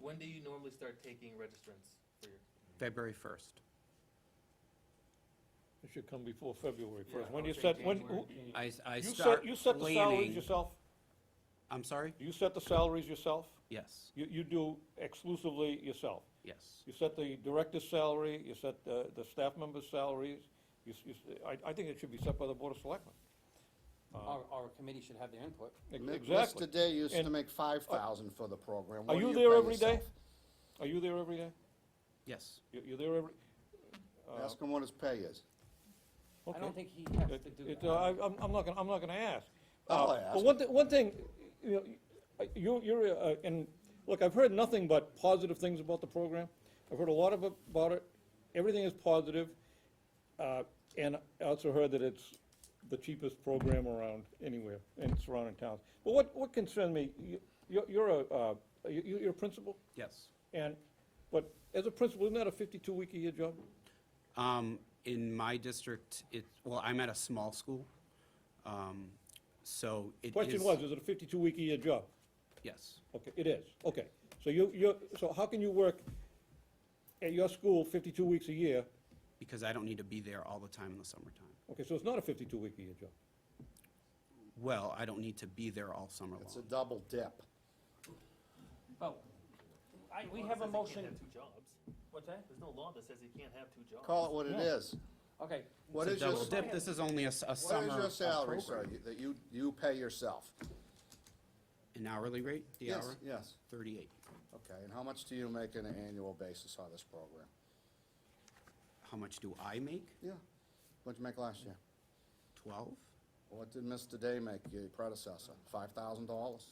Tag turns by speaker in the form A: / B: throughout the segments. A: When do you normally start taking registrants for your?
B: February 1st.
C: It should come before February first.
A: Yeah,
C: When
A: I
C: you
A: would
C: set,
A: say
C: when,
A: January.
C: who-
B: I, s- I
C: you
B: start
C: set, you set the salaries
B: planning.
C: yourself?
B: I'm sorry?
C: Do you set the salaries yourself?
B: Yes,
C: You, you do exclusively yourself?
B: yes.
C: You set the director's salary, you set the, the staff member's salaries, you, s- you, s- I, I think it should be set by the Board of Selectmen.
D: Our, our committee should have their input.
C: Ex-
E: Mi-
C: Exactly.
E: Mr. Day used to
C: And-
E: make five thousand for the program.
C: Are
E: What do
C: you there
E: pay
C: every day?
E: yourself?
C: Are you there every day?
B: Yes.
C: You, you're there every, uh,
E: Ask him what his pay is.
D: I
C: okay.
D: don't think he has to
C: It-
D: do
C: it,
D: that.
C: uh, I, I'm, I'm not gonna, I'm not gonna ask.
E: I'll
C: Uh, But
E: ask.
C: one, thi- one thing, you know, I- you, you're, uh, and, look, I've heard nothing but positive things about the program. I've heard a lot of, about it, everything is positive. Uh, and I also heard that it's the cheapest program around anywhere in surrounding towns. But what, what concerned me, you, you're, you're a, uh, you, you- you're a principal,
B: Yes.
C: and, but as a principal, isn't that a fifty-two week a year job?
B: Um, in my district, it, well, I'm at a small school, um, so it is.
C: Question was, is it a fifty-two week a year job?
B: Yes,
C: Okay, it is, okay. So you, you're, so how can you work at your school fifty-two weeks a year?
B: because I don't need to be there all the time in the summertime.
C: Okay, so it's not a fifty-two week a year job.
B: Well, I don't need to be there all summer
E: It's a
B: long.
E: double dip.
D: Well, I, we have a motion,
A: Two jobs.
D: what's that?
A: There's no law that says he can't have two jobs.
E: Call it what it
C: Yeah.
E: is.
D: Okay,
E: What
B: It's
E: is
B: a
E: your,
B: double dip, this is only a, s- a
E: what
B: summer.
E: is your
B: uh,
E: salary, sir,
B: program.
E: you- that you, you pay yourself?
B: An hourly rate, the
E: Yes,
B: hour?
E: Yes,
B: Thirty-eight.
E: okay. And how much do you make on an annual basis on this program?
B: How much do I make?
E: Yeah. What'd you make last year?
B: Twelve?
E: What did Mr. Day make, your predecessor? Five thousand dollars?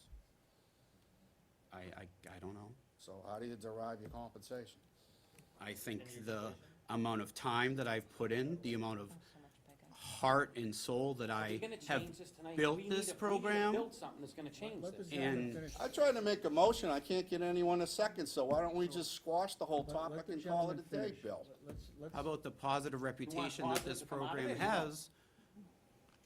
B: I, I, I don't know.
E: So how do you derive your compensation?
B: I think the amount of time that I've put in, the amount of heart and soul that
D: if
B: I
D: you're gonna
B: have
D: change this tonight, we
B: built
D: need to, we need
B: this
D: to
B: program,
D: build something that's gonna change this.
B: and
E: I tried to make a motion, I can't get anyone a second, so why don't we just squash the whole topic and call it a day, Bill?
B: how about the positive reputation that
D: positive
B: this
D: to come out of
B: program
D: it, you know?
B: has?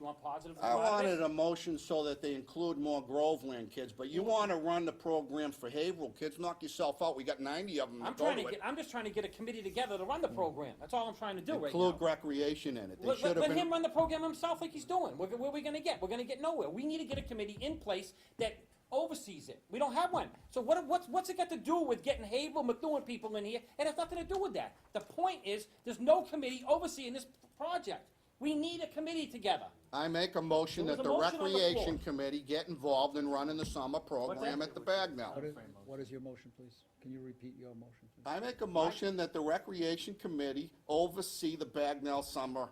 D: You want positive?
E: I
D: about it?
E: wanted a motion so that they include more Groveland kids, but you wanna run the program for Haverhill kids, knock yourself out, we got ninety of them to
D: I'm
E: go
D: trying
E: to
D: to
E: it.
D: get, I'm just trying to get a committee together to run the program, that's all I'm trying to do right now.
E: Include recreation in it,
D: Let,
E: they
D: let-
E: should have
D: let him
E: been,
D: run the program himself like he's doing. Where, where are we gonna get? We're gonna get nowhere. We need to get a committee in place that oversees it. We don't have one. So what, what's, what's it got to do with getting Havel, McLuhan people in here? It has nothing to do with that. The point is, there's no committee overseeing this project. We need a committee together.
E: I make a motion
D: There
E: that
D: was
E: the
D: a motion on the floor.
E: recreation committee get involved in running the summer program at the Bagnell.
F: What is, what is your motion, please? Can you repeat your motion? please?
E: I make a motion that the recreation committee oversee the Bagnell summer,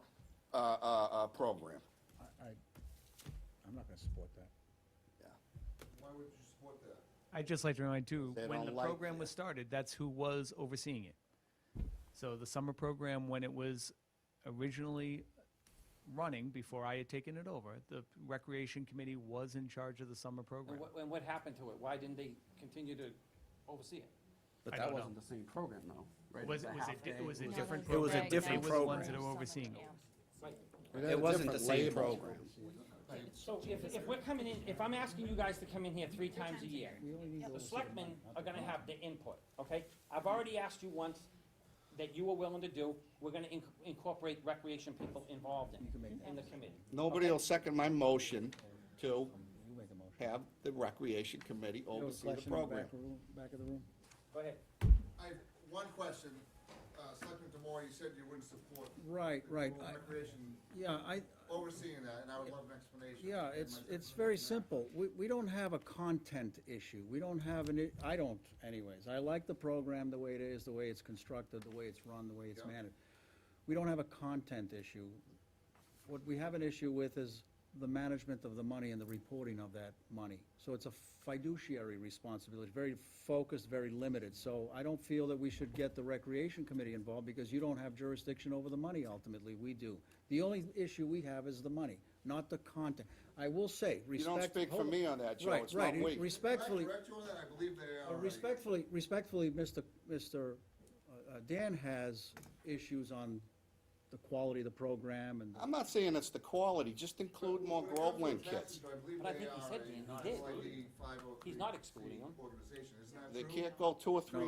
E: uh, uh, uh, program.
F: I, I'm not gonna support that.
G: Why would you support that?
H: I'd just like to remind too,
E: They
H: when
E: don't
H: the
E: like
H: program was started, that's who was overseeing it. So the summer program, when it was originally running, before I had taken it over, the recreation committee was in charge of the summer
D: And
H: program.
D: what, and what happened to it? Why didn't they continue to oversee it?
B: But
H: I
B: that
H: don't know.
B: wasn't the same program, though, right? It
H: Was,
B: a
H: it- was
B: half
H: it, di-
B: day,
H: was
B: it
H: it
B: was-
H: different
B: It was a
H: program?
B: different
H: They were the ones
B: program.
H: that are overseeing it.
B: It wasn't the same program.
D: So if, if we're coming in, if I'm asking you guys to come in here three times a year, the selectmen are gonna have the input, okay? I've already asked you once that you were willing to do, we're gonna inc- incorporate recreation people involved in, in the committee.
E: Nobody will second my motion to
F: You make a motion.
E: have the recreation committee
F: You know,
E: oversee the
F: question in back
E: program.
F: of room- Back of the room?
D: Go ahead.
G: I have one question. Uh, Selectman Damore, you said you wouldn't support.
F: Right,
G: the
F: right.
G: rural
F: I-
G: Recreation
F: Yeah, I,
G: overseeing that, and I would love an explanation.
F: yeah,
G: And
F: it's,
G: my-
F: it's very simple. We, we don't have a content issue. We don't have an, i- I don't anyways. I like the program the way it is, the way it's constructed, the way it's run, the way it's
G: Yeah.
F: managed. We don't have a content issue. What we have an issue with is the management of the money and the reporting of that money. So it's a fiduciary responsibility, very focused, very limited. So I don't feel that we should get the Recreation Committee involved because you don't have jurisdiction over the money ultimately, we do. The only issue we have is the money, not the content. I will say,
E: You
F: respect.
E: don't speak for
F: hold-
E: me on that, Joe,
F: Right,
E: it's not
F: right.
E: we.
G: Can I
F: Respectfully,
G: correct you on that? I believe they
F: uh,
G: are. already-
F: Respectfully, respectfully, Mr. Mr. uh, uh, Dan has issues on the the quality of the program and
E: I'm not saying it's the quality, just include more
G: When it comes to
E: Groveland
G: taxes,
E: kids.
G: I believe
D: But I
G: they
D: think he
G: are
D: said
G: a
D: he- he did.
G: non-LID 503
D: He's not excluding them.
G: Organization, isn't that
E: They
G: true?
E: can't go two or three